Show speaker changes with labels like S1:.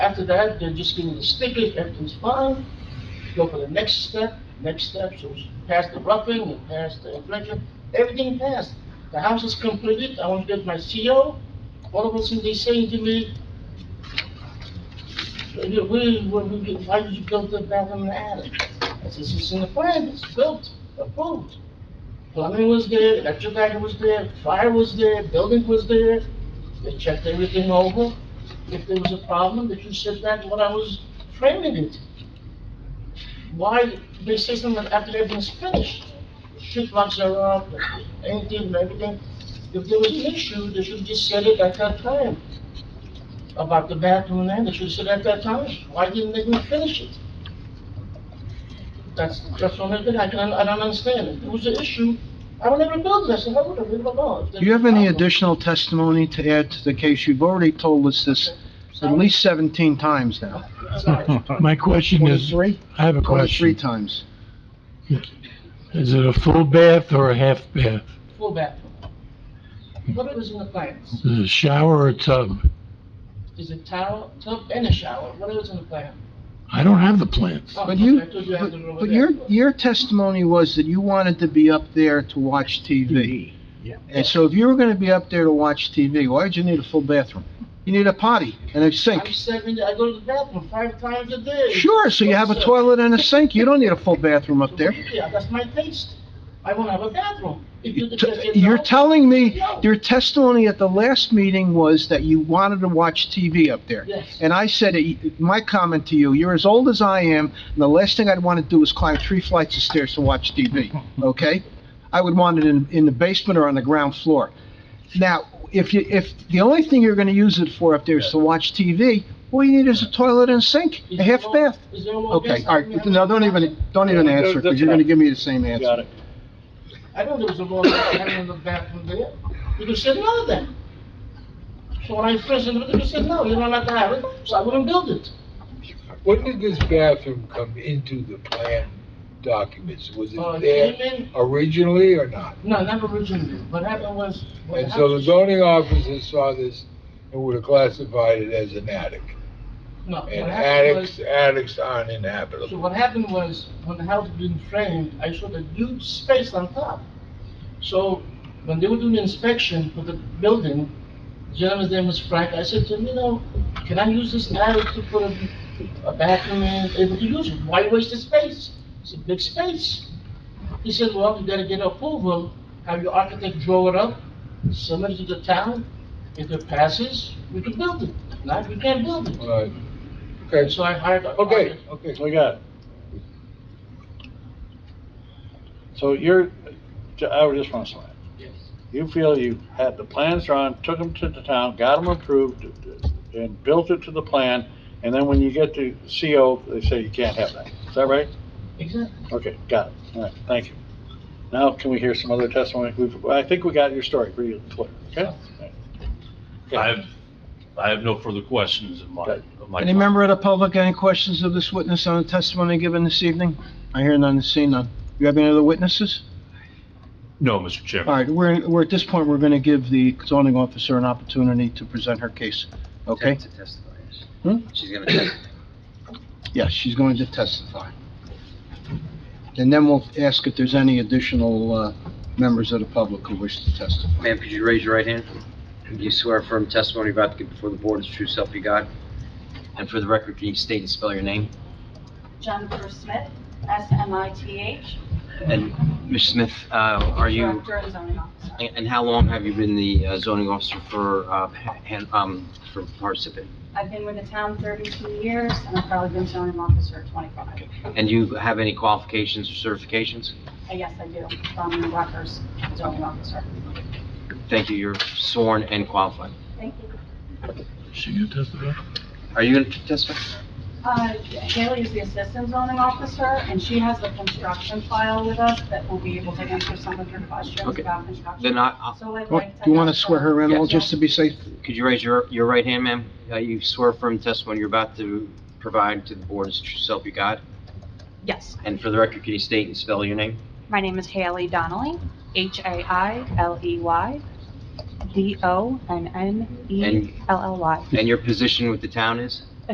S1: after that, they're just getting the stickers, everything's fine. Go for the next step, next step, so it's past the roughing, and past the inflection, everything passed. The house is completed, I want to get my CO. All of a sudden, they saying to me, "You- we, we, we- why did you build the bathroom in the attic? I says, it's in the plan, it's built, approved. Plumbing was there, electric guy was there, fire was there, building was there. They checked everything over. If there was a problem, they considered that what I was framing it. Why they say something after everything's finished? Street lights are up, anything, and everything. If there was an issue, they should just said it at that time. About the bathroom and they should have said at that time. Why didn't they even finish it? That's, that's the only thing I can, I don't understand. If it was an issue, I would never build this, I would have, I don't know.
S2: Do you have any additional testimony to add to the case? You've already told us this at least 17 times now.
S3: My question is,
S2: 23?
S3: I have a
S2: 23
S3: question.
S2: times.
S3: Is it a full bath or a half bath?
S1: Full bathroom. But it was in the plans.
S3: Is it a shower or a tub?
S1: There's a towel, tub, and a shower. What else in the plan?
S3: I don't have the plans.
S1: Oh,
S2: But
S1: okay,
S2: you,
S1: I told you I had
S2: but
S1: to go over
S2: but
S1: there.
S2: your, your testimony was that you wanted to be up there to watch TV. And so if you were going to be up there to watch TV, why did you need a full bathroom? You need a potty and a
S1: I'm
S2: sink.
S1: seven, I go to the bathroom five times a day.
S2: Sure, so you have a
S1: Yes, sir.
S2: toilet and a sink. You don't need a full bathroom up there.
S1: Yeah, that's my taste. I want to have a bathroom. If you just say
S2: You're
S1: no,
S2: telling me, your testimony at the last meeting was that you wanted to watch TV up there.
S1: Yes.
S2: And I said, my comment to you, you're as old as I am, and the last thing I'd want to do is climb three flights of stairs to watch TV, okay? I would want it in, in the basement or on the ground floor. Now, if you, if the only thing you're gonna use it for up there is to watch TV, all you need is a toilet and a sink,
S1: is
S2: a
S1: there
S2: half
S1: more-
S2: bath.
S1: Is there more
S2: Okay,
S1: gas?
S2: all right, no, don't even, don't even
S4: Yeah,
S2: answer, because
S4: that's
S2: you're gonna
S4: right.
S2: give me the same answer.
S4: Got it.
S1: I know there was a law that had in the bathroom there. You could say no then. So when I first, you could say no, you're not allowed to have it, so I wouldn't build it.
S5: When did this bathroom come into the plan documents? Was
S1: Uh,
S5: it
S1: it
S5: there
S1: came in,
S5: originally or not?
S1: no, not originally. What happened was. what
S5: And so the
S1: happened-
S5: zoning officer saw this and would have classified it as an attic.
S1: No, what
S5: And
S1: happened was.
S5: attics, attics aren't
S1: So
S5: inhabitable.
S1: what happened was, when the house was being framed, I showed a huge space on top. So when they were doing the inspection for the building, the gentleman's name was Frank, I said to him, you know, can I use this attic to put a, a bathroom in, able to use it? Why waste the space? It's a big space. He said, well, you gotta get approval, have your architect draw it up, submit it to the town. If it passes, we can build it. If Not, we can't build it.
S5: Right.
S1: And
S5: Okay,
S1: so I hired. a-
S5: okay, okay.
S4: I got it. So you're, I would just want to say,
S1: Yes.
S4: you feel you had the plans drawn, took them to the town, got them approved, and built it to the plan, and then when you get to CO, they say you can't have that. Is that right?
S1: Exactly.
S4: Okay, got it. All right, thank you. Now, can we hear some other testimony? We've, I think we got your story pretty clear, okay? All right. Okay.
S6: I have, I have no further questions of my, of my.
S2: Any member of the public, any questions of this witness on the testimony given this evening? I hear none, see none. You have any other witnesses?
S6: No, Mr.
S2: All
S6: Chairman.
S2: right, we're, we're, at this point, we're gonna give the zoning officer an opportunity to present her case, okay?
S7: To testify, yes.
S2: Hmm?
S7: She's gonna testify.
S2: Yes, she's going to testify. And then we'll ask if there's any additional, uh, members of the public who wish to testify.
S7: Ma'am, could you raise your right hand? Do you swear affirm testimony you're about to give before the board is the true self you got? And for the record, can you state and spell your name?
S8: Jennifer Smith, S-M-I-T-H.
S7: And Ms. Smith, uh, are you,
S8: Director and zoning officer.
S7: and and how long have you been the uh, zoning officer for, uh, Han- um, for participant?
S8: I've been with the town 32 years, and I've probably been zoning officer Uh, 25.
S7: And do you have any qualifications or certifications?
S8: Uh, Yes, I do, from the Rutgers zoning officer.
S7: Thank you, you're sworn and qualified.
S8: Thank you.
S3: She can testify?
S7: Are you going to testify?
S8: Uh, Haley is the assistant zoning officer, and she has the construction file with us that will be able to answer some of your questions
S7: Okay.
S8: about construction.
S7: Then I, I'll-
S8: So I'd
S2: Do
S8: like to...
S2: you wanna
S8: have
S2: swear her in,
S7: Yes.
S2: all just to be safe?
S7: could you raise your, your right hand, ma'am? Uh, You swear affirm testimony you're about to provide to the board is the true self you got?
S8: Yes,
S7: And for the record, can you state and spell your name?
S8: my name is Haley Donnelly, E H-A-I-L-E-Y, D-O-N-N-E-L-L-Y. E
S7: And your position with the town is?